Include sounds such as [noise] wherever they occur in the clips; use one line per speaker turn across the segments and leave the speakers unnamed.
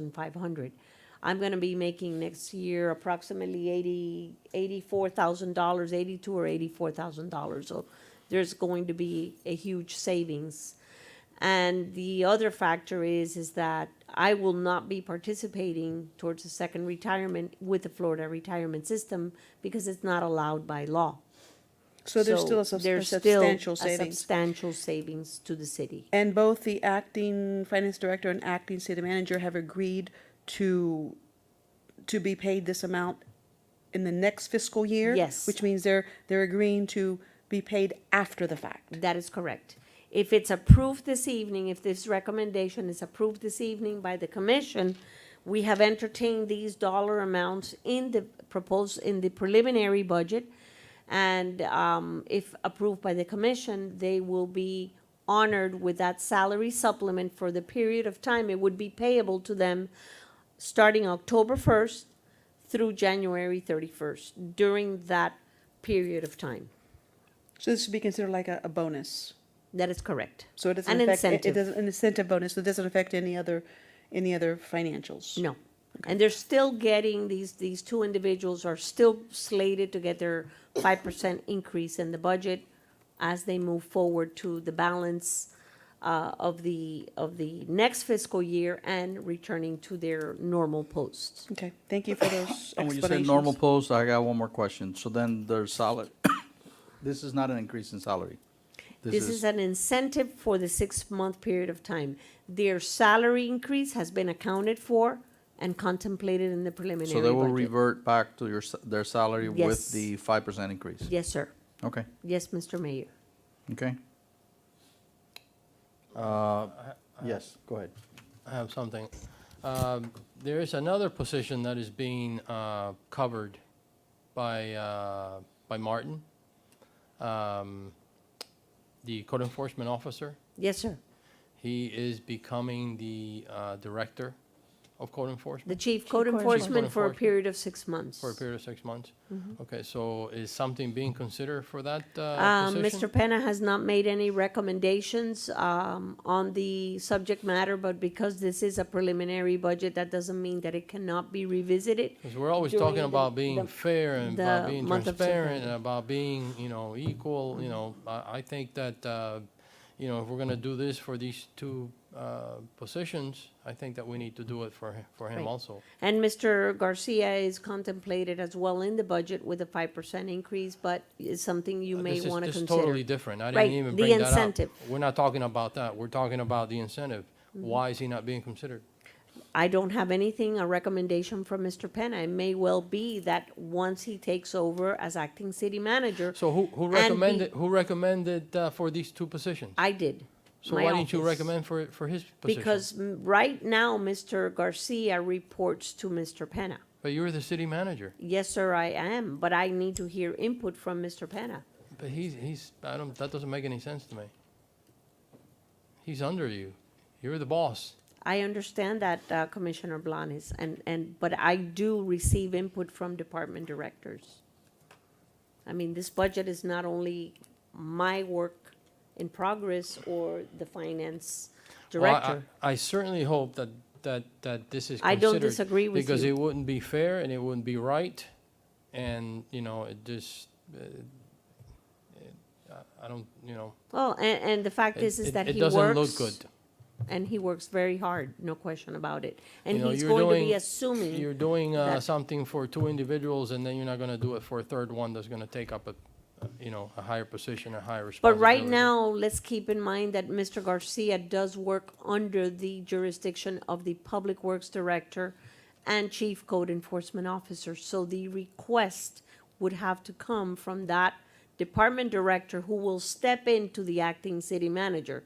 and five hundred. I'm gonna be making next year approximately eighty, eighty-four thousand dollars, eighty-two or eighty-four thousand dollars. So there's going to be a huge savings. And the other factor is, is that I will not be participating towards a second retirement with the Florida retirement system because it's not allowed by law.
So there's still a sub- a
there's still
substantial
a
savings.
Substantial savings to the city.
And both the acting finance director and acting city manager have agreed to, to be paid this amount in the next fiscal year?
Yes.
Which means they're, they're agreeing to be paid after the fact.
That is correct. If it's approved this evening, if this recommendation is approved this evening by the commission, we have entertained these dollar amounts in the proposed, in the preliminary budget. And um, if approved by the commission, they will be honored with that salary supplement for the period of time it would be payable to them starting October first through January thirty-first, during that period of time.
So this should be considered like a, a bonus.
That is correct.
So it doesn't
An
affect, it- it
incentive.
doesn't, an incentive bonus, so it doesn't affect any other, any other financials.
No. And they're still getting, these, these two individuals are still slated to get their five percent increase in the budget as they move forward to the balance uh, of the, of the next fiscal year and returning to their normal posts.
Okay, thank you for those
And when you say normal
explanations.
post, I got one more question. So then there's solid, [coughs] this is not an increase in salary.
This is an incentive for the six-month period of time. Their salary increase has been accounted for and contemplated in the preliminary
So
budget.
they will revert back to your, s- their salary
Yes.
with the five percent increase?
Yes, sir.
Okay,
Yes, Mr. Mayor.
okay. Uh, yes, go ahead.
I have something. Um, There is another position that is being uh, covered by, uh, by Martin, um, the code enforcement officer.
Yes, sir.
He is becoming the uh, director of code
The
enforcement
chief code
code
enforcement for a
enforcement.
period of six months.
for a period of six months. Okay, so is something being considered for that uh,
Um,
position?
Mr. Penna has not made any recommendations, um, on the subject matter, but because this is a preliminary budget, that doesn't mean that it cannot be revisited.
Because we're always
during
talking
the-
about being
the-
fair and about
the
being
month of
transparent and
September.
about being, you know, equal, you know, I, I think that, uh, you know, if we're gonna do this for these two, uh, positions, I think that we need to do it for, hi- for
Right.
him also.
And Mr. Garcia is contemplated as well in the budget with a five percent increase, but it's something you
Uh,
may
this is-
wanna
this is
consider.
Totally different. I
Right,
didn't even
the
bring that up.
incentive. Mm-hmm.
We're not talking about that. We're talking about the incentive. Why is he not being considered?
I don't have anything, a recommendation from Mr. Penna. It may well be that once he takes over as acting city manager,
So who, who
And be-
recommended, who recommended, uh, for these two positions?
I did.
So
My
why didn't you
office.
recommend for, for his position?
Because m- right now, Mr. Garcia reports to Mr. Penna.
But you were the city manager.
Yes, sir, I am, but I need to hear input from Mr. Penna.
But he's, he's, I don't, that doesn't make any sense to me. He's under you. You're the boss.
I understand that uh, Commissioner Blanes, and, and, but I do receive input from department directors. I mean, this budget is not only my work in progress or the finance
Well, I-
director.
I I certainly hope that, that, that this is
I
considered.
don't disagree with
Because
you.
it wouldn't be fair and it wouldn't be right. And, you know, it just, uh, it- I- I don't, you know.
Well, and, and the fact
it-
is, is
it-
that he
It
works.
doesn't look good.
And he works very hard, no question about it. And
You know,
he's
you're
going to be
doing-
assuming
You're doing uh,
that-
something for two individuals and then you're not going to do it for a third one that's going to take up a, uh, you know, a higher position, a higher
But
responsibility.
right now, let's keep in mind that Mr. Garcia does work under the jurisdiction of the Public Works Director and Chief Code Enforcement Officer. So the request would have to come from that department director who will step into the acting city manager.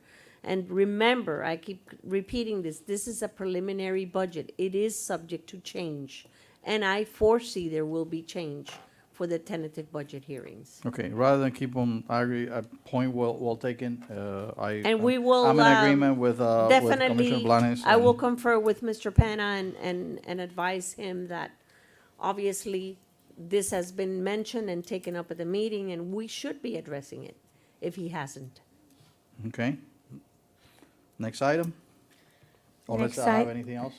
And remember, I keep repeating this, this is a preliminary budget. It is subject to change. And I foresee there will be change for the tentative budget hearings.
Okay, rather than keep on, I agree, a point well, well taken, uh, I.
And we will,
I'm in
um,
agreement with, uh, with Commissioner
Definitely,
Blanes.
I will
and-
confer with Mr. Penna and, and, and advise him that obviously this has been mentioned and taken up at the meeting and we should be addressing it if he hasn't.
Okay. Next item? Unless
Next
I have
i-
anything else?